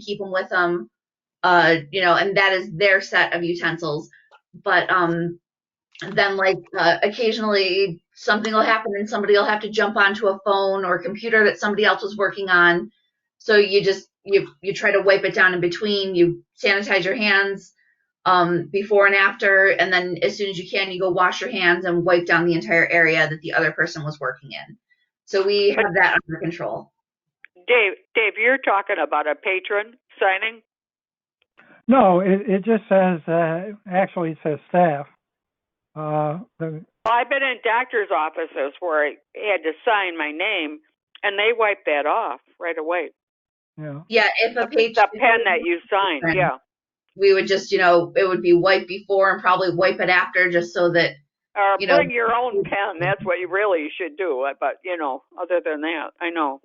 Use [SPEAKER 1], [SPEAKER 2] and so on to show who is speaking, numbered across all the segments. [SPEAKER 1] keep them with them. Uh, you know, and that is their set of utensils. But um, then like uh, occasionally something will happen and somebody will have to jump onto a phone or computer that somebody else was working on. So you just you you try to wipe it down in between. You sanitize your hands um, before and after, and then as soon as you can, you go wash your hands and wipe down the entire area that the other person was working in. So we have that under control.
[SPEAKER 2] Dave, Dave, you're talking about a patron signing?
[SPEAKER 3] No, it, it just says, uh, actually it says staff. Uh, the,
[SPEAKER 2] Well, I've been in doctor's offices where I had to sign my name, and they wiped that off right away.
[SPEAKER 3] yeah,
[SPEAKER 1] Yeah, if a page
[SPEAKER 2] The pen that you signed, yeah.
[SPEAKER 1] we would just you know it would be wipe before and probably wipe it after just so that
[SPEAKER 2] Or
[SPEAKER 1] You know-
[SPEAKER 2] bring your own pen. That's what you really should do. uh, But you know, other than that, I know.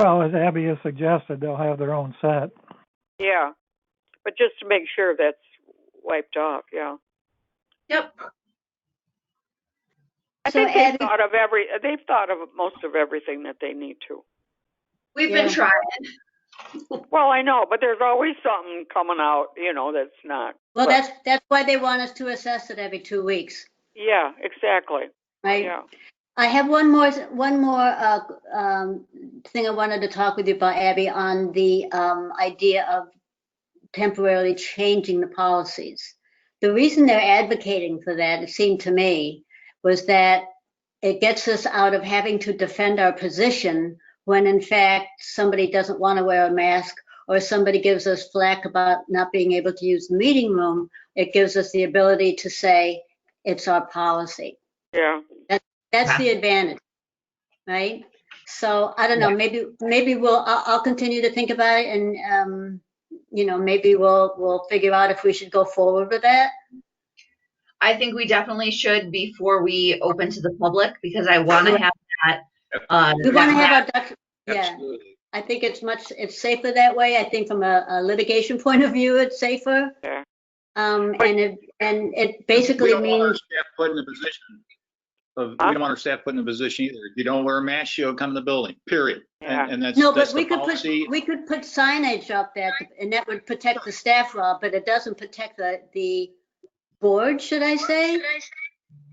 [SPEAKER 3] well, as Abby has suggested, they'll have their own set.
[SPEAKER 2] Yeah, but just to make sure that's wiped off. Yeah.
[SPEAKER 1] yep
[SPEAKER 2] I
[SPEAKER 4] So
[SPEAKER 2] think they've
[SPEAKER 4] Ed-
[SPEAKER 2] thought of every. They've thought of most of everything that they need to.
[SPEAKER 1] we've
[SPEAKER 4] Yeah.
[SPEAKER 1] been trying
[SPEAKER 2] Well, I know, but there's always something coming out. You know, that's not.
[SPEAKER 4] Well,
[SPEAKER 2] Well-
[SPEAKER 4] that's, that's why they want us to assess it every two weeks,
[SPEAKER 2] Yeah, exactly.
[SPEAKER 4] right?
[SPEAKER 2] Yeah.
[SPEAKER 4] I have one more, one more uh, um, thing I wanted to talk with you about, Abby, on the um, idea of temporarily changing the policies. The reason they're advocating for that, it seemed to me, was that it gets us out of having to defend our position when in fact somebody doesn't want to wear a mask or somebody gives us flack about not being able to use the meeting room. It gives us the ability to say, it's our policy.
[SPEAKER 2] Yeah.
[SPEAKER 4] That's
[SPEAKER 1] Yeah.
[SPEAKER 4] the advantage, right? So I don't know, maybe, maybe we'll, I'll, I'll continue to think about it and, um, you know, maybe we'll, we'll figure out if we should go forward with that.
[SPEAKER 1] i think we definitely should before we open to the public because i want to have that uh
[SPEAKER 4] We want to
[SPEAKER 1] that-
[SPEAKER 4] have our, doc- yeah,
[SPEAKER 5] Absolutely.
[SPEAKER 4] I think it's much, it's safer that way. I think from a a litigation point of view, it's safer.
[SPEAKER 2] Yeah.
[SPEAKER 4] Um,
[SPEAKER 2] But-
[SPEAKER 4] and it, and it
[SPEAKER 5] We
[SPEAKER 4] basically
[SPEAKER 5] don't want our
[SPEAKER 4] means,
[SPEAKER 5] staff put in a position of, we
[SPEAKER 2] Huh?
[SPEAKER 5] don't want our staff put in a position either. If you don't wear a mask, you don't come in the building, period.
[SPEAKER 2] Yeah.
[SPEAKER 5] And and that's,
[SPEAKER 4] no,
[SPEAKER 5] that's
[SPEAKER 4] but
[SPEAKER 5] the
[SPEAKER 4] we could put,
[SPEAKER 5] policy.
[SPEAKER 4] we could put signage up there and that would protect the staff, Rob, but it doesn't protect the, the board, should I say?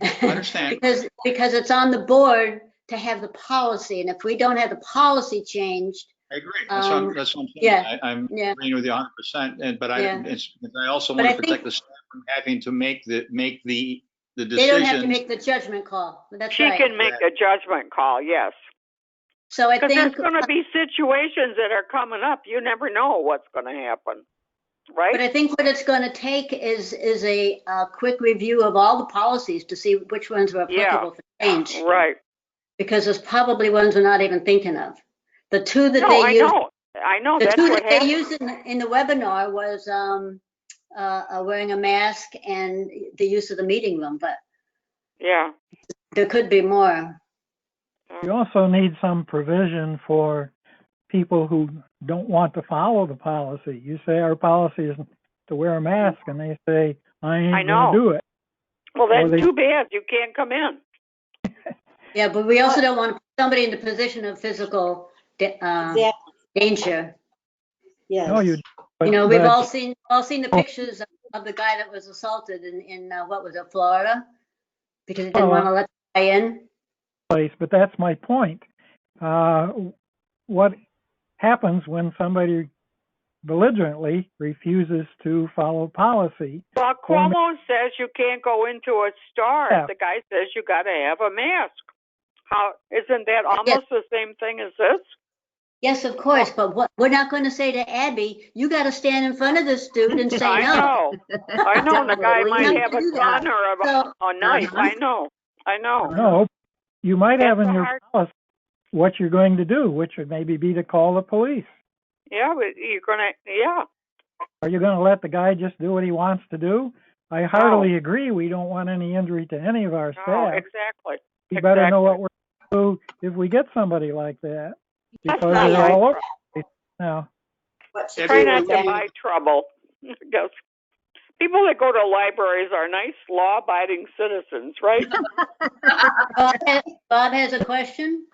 [SPEAKER 5] I understand.
[SPEAKER 4] Because, because it's on the board to have the policy, and if we don't have the policy changed,
[SPEAKER 5] I agree. That's what I'm,
[SPEAKER 4] um,
[SPEAKER 5] that's what I'm saying.
[SPEAKER 4] yeah,
[SPEAKER 5] I- I'm
[SPEAKER 4] yeah.
[SPEAKER 5] agreeing with you hundred percent. And, but I,
[SPEAKER 4] Yeah.
[SPEAKER 5] it's, I also
[SPEAKER 4] But
[SPEAKER 5] want
[SPEAKER 4] I
[SPEAKER 5] to
[SPEAKER 4] think-
[SPEAKER 5] protect the staff from having to make the, make the, the
[SPEAKER 4] they don't have to
[SPEAKER 5] decision.
[SPEAKER 4] make the judgment call. That's
[SPEAKER 2] She
[SPEAKER 4] right.
[SPEAKER 2] can make a judgment call. Yes.
[SPEAKER 4] So I
[SPEAKER 2] Because there's
[SPEAKER 4] think,
[SPEAKER 2] going to be situations that are coming up. You never know what's going to happen,
[SPEAKER 4] but
[SPEAKER 2] right?
[SPEAKER 4] I think what it's going to take is, is a, uh quick review of all the policies to see which ones are
[SPEAKER 2] Yeah.
[SPEAKER 4] applicable for change.
[SPEAKER 2] Right.
[SPEAKER 4] Because there's probably ones we're not even thinking of. The two that
[SPEAKER 2] No,
[SPEAKER 4] they
[SPEAKER 2] I
[SPEAKER 4] use.
[SPEAKER 2] know. I know.
[SPEAKER 4] The
[SPEAKER 2] That's
[SPEAKER 4] two
[SPEAKER 2] what
[SPEAKER 4] that they
[SPEAKER 2] happened.
[SPEAKER 4] used in, the- in the webinar was, um, uh, uh, wearing a mask and the use of the meeting room, but
[SPEAKER 2] Yeah.
[SPEAKER 4] there could be more.
[SPEAKER 3] You also need some provision for people who don't want to follow the policy. You say our policy is to wear a mask, and they say, I
[SPEAKER 2] I
[SPEAKER 3] ain't
[SPEAKER 2] know.
[SPEAKER 3] gonna do it.
[SPEAKER 2] Well,
[SPEAKER 3] Well,
[SPEAKER 2] that's
[SPEAKER 3] they-
[SPEAKER 2] too bad. You can't come in.
[SPEAKER 4] Yeah, but we also don't want to put somebody in the position of physical da- uh,
[SPEAKER 6] Exactly,
[SPEAKER 4] danger.
[SPEAKER 6] yes.
[SPEAKER 3] No, you.
[SPEAKER 4] You
[SPEAKER 3] but-
[SPEAKER 4] know, we've
[SPEAKER 3] but-
[SPEAKER 4] all seen, all seen the pictures of- of the guy that was assaulted in, in, uh, what was it, Florida? Because he didn't
[SPEAKER 3] Oh,
[SPEAKER 4] want to let the guy in.
[SPEAKER 3] place, but that's my point. Uh, what happens when somebody belligerently refuses to follow policy?
[SPEAKER 2] Well,
[SPEAKER 3] Well,
[SPEAKER 2] Cuomo says you can't go into a store.
[SPEAKER 3] Yeah.
[SPEAKER 2] The guy says you got to have a mask. How isn't that almost the same thing as this?
[SPEAKER 4] Yes, of course, but what, we're not going to say to Abby, you got to stand in front of this dude and say
[SPEAKER 2] I
[SPEAKER 4] no.
[SPEAKER 2] know. I know. The guy
[SPEAKER 1] Definitely
[SPEAKER 2] might
[SPEAKER 4] not
[SPEAKER 2] have
[SPEAKER 4] do
[SPEAKER 2] a
[SPEAKER 4] that.
[SPEAKER 2] gun or a,
[SPEAKER 4] So-
[SPEAKER 2] a knife.
[SPEAKER 1] Uh-huh.
[SPEAKER 2] I know. I know.
[SPEAKER 3] No, you might have
[SPEAKER 2] That's
[SPEAKER 3] in
[SPEAKER 2] a
[SPEAKER 3] your
[SPEAKER 2] hard-
[SPEAKER 3] policy what you're going to do, which would maybe be to call the police.
[SPEAKER 2] Yeah, but you're gonna. Yeah.
[SPEAKER 3] Are you going to let the guy just do what he wants to do? I heartily agree. We don't want any injury to any of our
[SPEAKER 2] No,
[SPEAKER 3] staff.
[SPEAKER 2] exactly.
[SPEAKER 3] We better know what
[SPEAKER 2] exactly.
[SPEAKER 3] we're going to do if we get somebody like that
[SPEAKER 6] That's
[SPEAKER 3] because
[SPEAKER 6] not
[SPEAKER 3] they're
[SPEAKER 6] right.
[SPEAKER 3] all over the place now.
[SPEAKER 6] What she
[SPEAKER 2] Try
[SPEAKER 5] Everyone-
[SPEAKER 2] not
[SPEAKER 6] did
[SPEAKER 2] to
[SPEAKER 6] was
[SPEAKER 2] buy trouble. Just- People that go to libraries are nice, law-abiding citizens, right?
[SPEAKER 4] Bob has- Bob has a question?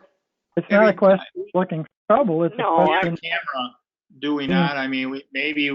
[SPEAKER 3] It's not a
[SPEAKER 5] Every-
[SPEAKER 3] question of looking for trouble. It's
[SPEAKER 2] No,
[SPEAKER 3] a
[SPEAKER 5] Yeah,
[SPEAKER 3] question
[SPEAKER 5] camera, do we
[SPEAKER 3] Yeah.
[SPEAKER 5] not? I mean, we- maybe